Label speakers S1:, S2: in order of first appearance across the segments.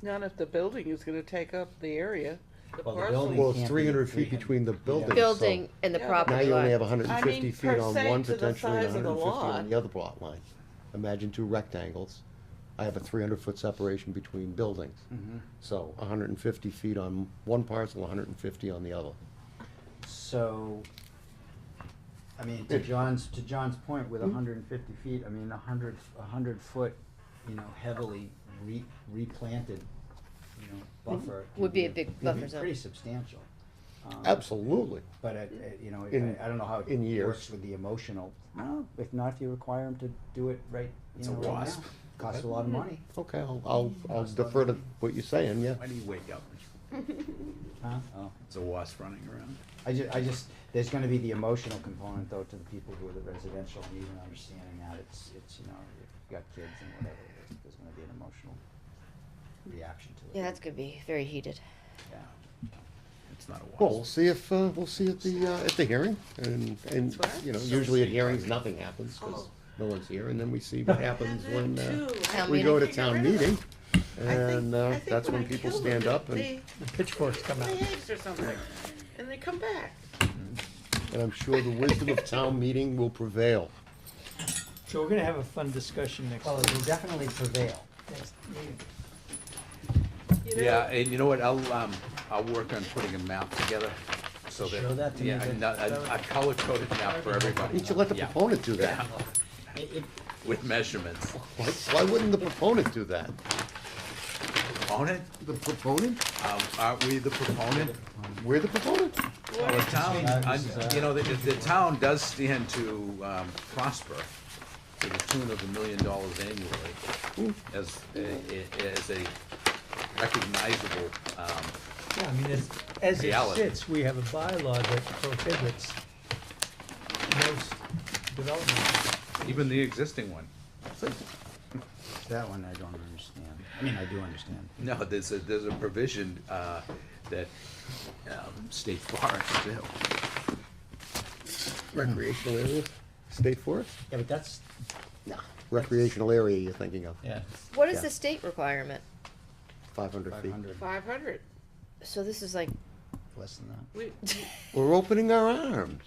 S1: Not if the building is gonna take up the area. The
S2: Well, the
S1: parcel-
S2: building-
S3: Well, it's
S2: can't be
S3: three hundred feet
S2: 300.
S3: between the buildings, so.
S4: building and the
S1: Yeah, but
S3: Now
S4: property
S3: you only have
S4: line.
S3: hundred and
S1: I mean,
S3: fifty feet
S1: per
S3: on
S1: se
S3: one,
S1: to the
S3: potentially and
S1: size of the
S3: hundred and fifty
S1: lot.
S3: on the other block line. Imagine two rectangles. I have a three hundred foot separation between buildings.
S2: Mm-hmm.
S3: So hundred and fifty feet on one parcel, hundred and fifty on the other.
S2: So, I mean, to John's, to John's point with hundred and fifty feet, I mean, a hundred, a hundred foot, you know, heavily re- replanted, you know, buffer. can
S4: Mm-hmm. Would be a big buffer zone.
S2: Pretty substantial. Um,
S3: Absolutely.
S2: But it, it- you know, it-
S3: In-
S2: I I don't know how
S3: in
S2: it
S3: years.
S2: works with the emotional, no, if not, if you require them to do it right, you know, right now. Costs a lot of money,
S3: Okay, I'll, I'll, I'll defer to what you're saying, yeah.
S5: Why do you wake up?
S4: Mm-hmm.
S2: huh? Oh.
S5: It's a wasp running around.
S2: I just, I just, there's gonna be the emotional component though to the people who are the residential, and even understanding that it's, it's, you know, if you've got kids and whatever, there's, there's gonna be an emotional reaction to it.
S4: Yeah, that's gonna be very heated.
S2: Yeah.
S5: It's not a
S3: Well, we'll
S5: wasp.
S3: see if, uh, we'll see at the, uh, at the hearing, and, and,
S1: That's right.
S3: you know, usually at hearings, nothing happens,
S1: Oh.
S3: because no one's here, and then we see what happens when, uh,
S4: Town
S3: we go to
S4: meeting.
S3: town meeting, and, uh, that's when people stand up, and,
S1: Pitchforks come out. eggs or something, and they come back.
S3: and I'm sure the wisdom of town meeting will prevail.
S6: So we're gonna have a fun discussion next
S2: Well,
S6: week.
S2: it will definitely prevail.
S6: next meeting.
S1: You know,
S5: Yeah, and you know what, I'll, um, I'll work on putting a map together, so that.
S2: Show that to me,
S5: Yeah,
S2: that-
S5: and I, I color coded map for everybody.
S3: You should let the
S5: Yeah,
S3: proponent do that.
S2: It, it,
S5: With measurements.
S3: Why, why wouldn't the proponent do that?
S5: On it,
S3: The proponent?
S5: um, aren't we the proponent?
S3: We're the proponent?
S5: Well, the town,
S2: Uh,
S5: I-
S2: this is, uh,
S5: you know, the, the town does stand to, um, prosper to the tune of a million dollars annually as, a- as a recognizable, um,
S6: Yeah, I mean, as, as it
S5: Reality.
S6: sits, we have a bylaw that prohibits most development.
S5: even the existing one.
S2: that one I don't understand. I mean, I do understand.
S5: No, there's a, there's a provision, uh, that, um, state forests, do.
S3: Recreational area, state forest?
S2: Yeah, but that's,
S3: No. Recreational area you're thinking of,
S2: yeah,
S4: What is
S3: Yeah.
S4: the state requirement?
S3: five hundred
S2: five
S3: feet.
S2: hundred,
S1: Five hundred,
S4: So this is like,
S2: less than that.
S1: we,
S3: We're opening our arms.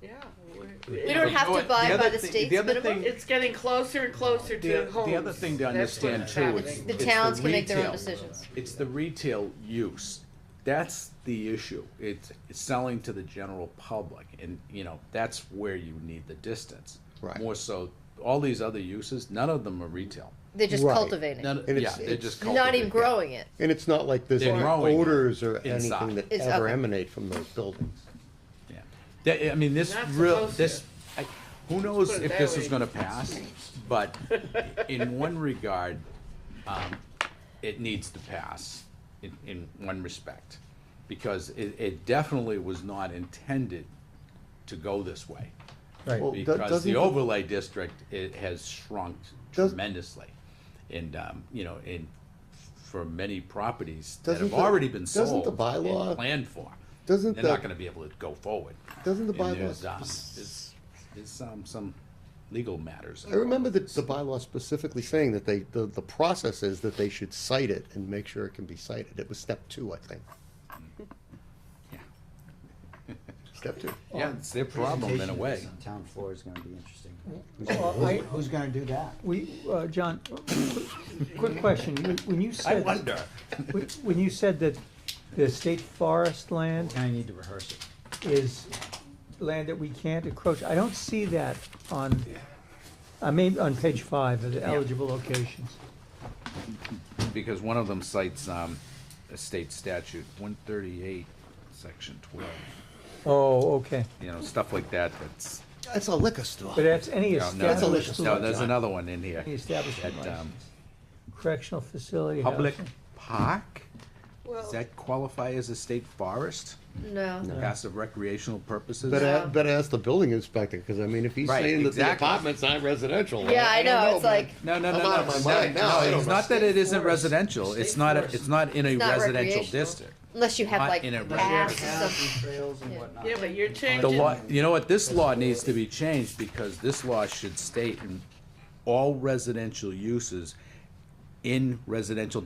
S1: yeah.
S4: we
S1: we-
S4: don't have to
S5: But the
S4: abide by
S5: other
S4: the
S5: thing-
S4: state's
S5: the other
S4: minimum?
S5: thing-
S1: It's getting closer and closer
S5: The-
S1: to
S5: the
S1: homes.
S5: other thing to
S1: That's
S5: understand,
S1: what's
S5: too,
S1: happening.
S5: it's-
S4: The
S5: the
S4: towns can make their own
S5: retail.
S4: decisions.
S5: It's the retail use. That's the issue. It's, it's selling to the general public and, you know, that's where you need the distance.
S3: Right.
S5: More so, all these other uses, none of them are retail.
S4: They're just
S3: Right.
S4: cultivating.
S5: None,
S3: And
S5: yeah,
S3: it's-
S5: they're
S3: it's-
S5: just
S4: They're Not even
S5: cultivating.
S4: growing it.
S3: And it's not like there's
S5: They're
S3: any
S5: growing
S3: odors or anything
S5: inside.
S3: that
S4: It's
S3: ever
S4: okay.
S3: emanate from those buildings.
S5: Yeah. That, I mean, this
S1: Not
S5: real,
S1: supposed to.
S5: this, I, who knows
S1: put it
S5: if
S1: that
S5: this is
S1: way.
S5: gonna pass, but in one regard, um, it needs to pass in, in one respect. Because it, it definitely was not intended to go this way.
S2: Right.
S3: Well, do-
S5: Because
S3: doesn't
S5: the
S3: the-
S5: overlay district, it has shrunk
S3: Does-
S5: tremendously. And, um, you know, and for many properties that
S3: Doesn't
S5: have
S3: the-
S5: already been
S3: doesn't the
S5: sold and
S3: bylaw-
S5: planned for.
S3: doesn't
S5: They're not
S3: the-
S5: gonna be able to go forward.
S3: Doesn't the
S5: And
S3: bylaw
S5: there's, um,
S3: spec-
S5: There's there's, um, some legal matters.
S3: I remember the, the bylaw specifically saying that they, the, the process is that they should cite it and make sure it can be cited. It was step two, I think.
S5: Yeah.
S3: Step two.
S5: Yeah, it's their problem in a
S2: Presentation
S5: way.
S2: on Town floor is gonna be interesting.
S6: Well, uh, I,
S2: Who's gonna do that?
S6: we, uh, John, quick question, When- when you
S5: I
S6: said.
S5: wonder.
S6: when- When you said that the state forest
S2: We're
S6: land
S2: gonna need to rehearse it.
S6: is land that we can't encroach, I don't see that on, I mean, on page five of the eligible locations.
S5: Because one of them cites, um, a state statute, one thirty-eight, section twelve,
S6: Oh, okay,
S5: you know, stuff like that, that's.
S3: That's a liquor store.
S6: but uh, that's any
S5: no, no,
S3: That's a liquor
S6: established,
S3: store.
S5: No, there's another one in here.
S6: any establishment
S5: That, um,
S6: license, correctional facility.
S5: Public
S6: housing.
S5: park,
S1: Well,
S5: does that qualify as a state forest?
S4: No.
S5: Passive recreational purposes?
S3: Better,
S4: Yeah.
S3: a- better ask the building inspector, because I mean, if he's
S5: Right,
S3: saying that the
S5: exactly.
S3: apartments aren't residential.
S4: Yeah, I
S3: don't
S4: know, it's
S3: man.
S4: like,
S5: No, no, no,
S3: I'm
S5: no.
S3: out of my
S5: it's
S3: mind
S5: not-
S3: now, I
S5: No,
S3: don't
S5: it's
S3: know.
S5: not that it isn't
S2: State
S5: residential.
S2: forest.
S5: It's not, a- it's not in a
S4: not
S5: residential
S4: recreational.
S5: district.
S4: unless you have
S5: Not
S4: like
S5: in a
S4: paths
S5: residential.
S4: or something.
S2: Trails and whatnot.
S1: yeah, but you're
S5: The
S1: changing,
S5: law, you know what, this law needs to be changed because this law should state in all residential uses in residential